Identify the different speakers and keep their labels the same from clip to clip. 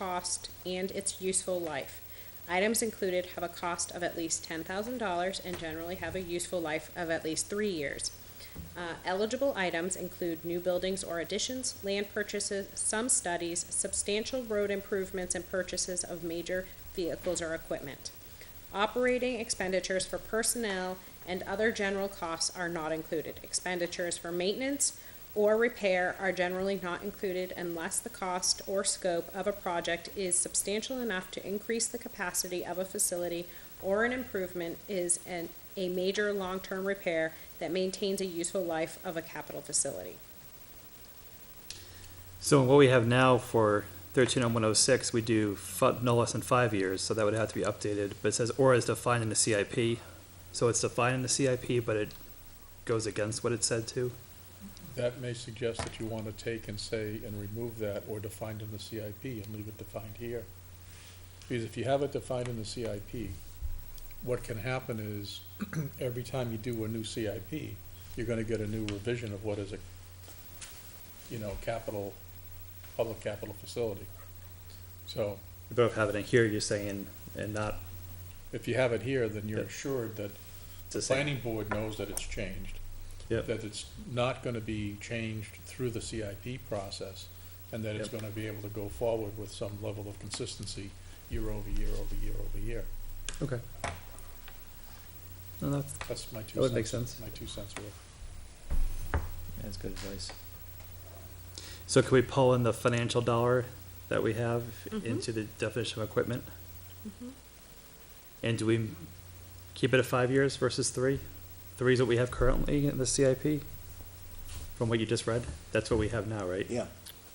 Speaker 1: cost and its useful life. Items included have a cost of at least ten thousand dollars and generally have a useful life of at least three years. Uh, eligible items include new buildings or additions, land purchases, some studies, substantial road improvements, and purchases of major vehicles or equipment. Operating expenditures for personnel and other general costs are not included. Expenditures for maintenance or repair are generally not included unless the cost or scope of a project is substantial enough to increase the capacity of a facility or an improvement is an, a major long-term repair that maintains a useful life of a capital facility.
Speaker 2: So what we have now for thirteen oh one oh six, we do fi- no less than five years, so that would have to be updated, but it says or is defined in the CIP. So it's defined in the CIP, but it goes against what it said to.
Speaker 3: That may suggest that you want to take and say, and remove that, or define it in the CIP and leave it defined here. Because if you have it defined in the CIP, what can happen is, every time you do a new CIP, you're gonna get a new revision of what is a, you know, capital, public capital facility. So,
Speaker 2: We both have it in here, you're saying, and not
Speaker 3: if you have it here, then you're
Speaker 2: Yeah.
Speaker 3: assured that
Speaker 2: to say.
Speaker 3: planning board knows that it's changed.
Speaker 2: Yep.
Speaker 3: That it's not gonna be changed through the CIP process, and that it's
Speaker 2: Yep.
Speaker 3: gonna be able to go forward with some level of consistency year over year over year over year.
Speaker 2: Okay. No, that's,
Speaker 3: That's my two cents.
Speaker 2: That would make sense.
Speaker 3: My two cents worth.
Speaker 4: That's good advice.
Speaker 2: so can we pull in the financial dollar that we have
Speaker 1: Mhm.
Speaker 2: into the definition of equipment? And do we keep it at five years versus three? Three is what we have currently in the CIP? From what you just read? That's what we have now, right?
Speaker 4: Yeah.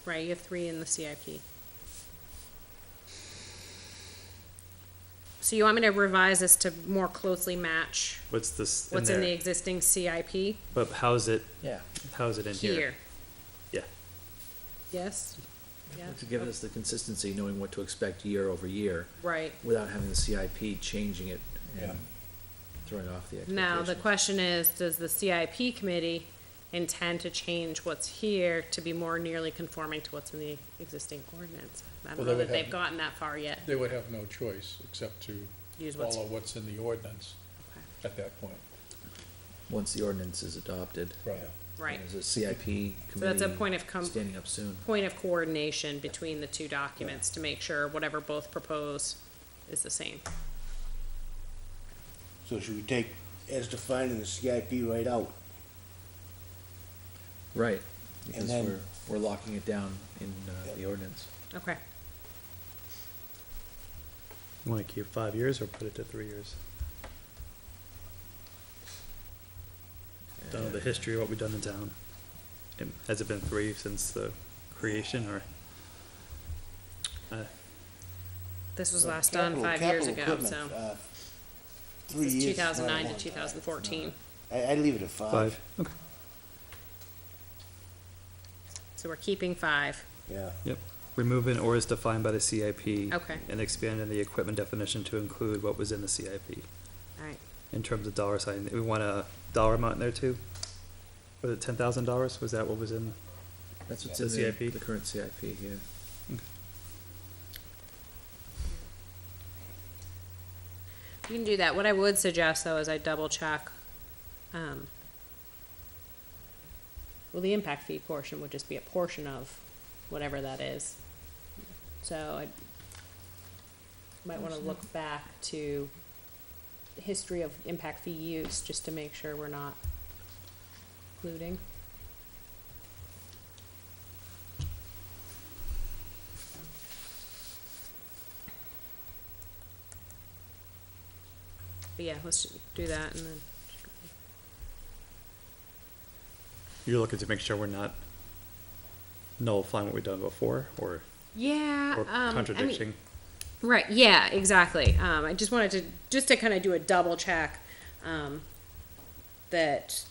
Speaker 1: Right, you have three in the CIP. So you want me to revise this to more closely match
Speaker 2: What's this in
Speaker 1: what's in the
Speaker 2: there?
Speaker 1: existing CIP
Speaker 2: But how's it,
Speaker 4: Yeah.
Speaker 2: how's it in here?
Speaker 1: here?
Speaker 2: Yeah.
Speaker 1: Yes? Yeah,
Speaker 4: To give us the consistency, knowing what to expect year over year,
Speaker 1: right.
Speaker 4: without having the CIP changing it
Speaker 3: Yeah.
Speaker 4: and throwing off the expectation.
Speaker 1: Now, the question is, does the CIP committee intend to change what's here to be more nearly conforming to what's in the existing ordinance? I don't
Speaker 3: Well, they
Speaker 1: know
Speaker 3: would
Speaker 1: that they've
Speaker 3: have-
Speaker 1: gotten that far yet,
Speaker 3: They would have no choice except to
Speaker 1: use what's,
Speaker 3: follow what's in the ordinance at that point.
Speaker 4: Once the ordinance is adopted.
Speaker 3: Right.
Speaker 1: right.
Speaker 4: There's a CIP committee.
Speaker 1: So that's a point of com-
Speaker 4: Standing up soon.
Speaker 1: point of coordination between the two documents to make sure whatever both propose is the same.
Speaker 5: So should we take as defined in the CIP right out?
Speaker 4: Right, because
Speaker 5: then-
Speaker 4: we're, we're locking it down in uh, the ordinance.
Speaker 1: Okay.
Speaker 2: Want to keep five years or put it to three years? Don't know the history of what we've done in town. And Has it been three since the creation or? Uh,
Speaker 1: This was last done
Speaker 5: Capital-
Speaker 1: five years
Speaker 5: capital
Speaker 1: ago, so
Speaker 5: equipment, uh, Three
Speaker 1: it's
Speaker 5: years.
Speaker 1: two
Speaker 5: is not a
Speaker 1: thousand nine to
Speaker 5: long
Speaker 1: two
Speaker 5: time.
Speaker 1: thousand fourteen.
Speaker 5: I, I'd leave it at
Speaker 2: Five,
Speaker 5: five,
Speaker 2: okay,
Speaker 1: So we're keeping five.
Speaker 5: yeah.
Speaker 2: yep. Remove an or is defined by the CIP.
Speaker 1: Okay.
Speaker 2: And expand in the equipment definition to include what was in the CIP.
Speaker 1: All right.
Speaker 2: In terms of dollar sign, we want a dollar amount in there too? Was it ten thousand dollars? Was that what was in?
Speaker 4: That's what's
Speaker 2: The
Speaker 4: in the,
Speaker 2: CIP?
Speaker 4: the current CIP, yeah.
Speaker 1: You can do that. What I would suggest though is I double check, um, well, the impact fee portion would just be a portion of whatever that is. So I might wanna look back to the history of impact fee use, just to make sure we're not including. But yeah, let's do that and then,
Speaker 2: You're looking to make sure we're not nullifying what we've done before or,
Speaker 1: yeah,
Speaker 2: or
Speaker 1: um, I mean,
Speaker 2: contradicting?
Speaker 1: Right, yeah, exactly. Um, I just wanted to, just to kind of do a double check, um, that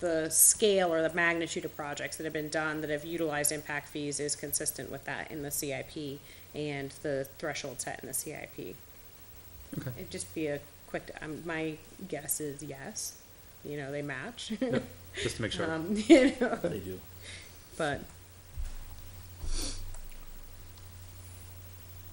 Speaker 1: the scale or the magnitude of projects that have been done that have utilized impact fees is consistent with that in the CIP and the threshold set in the CIP.
Speaker 2: Okay.
Speaker 1: It'd just be a quick, um, my guess is yes, you know, they match.
Speaker 2: Just to make sure.
Speaker 1: Um, you know,
Speaker 4: They do.
Speaker 1: but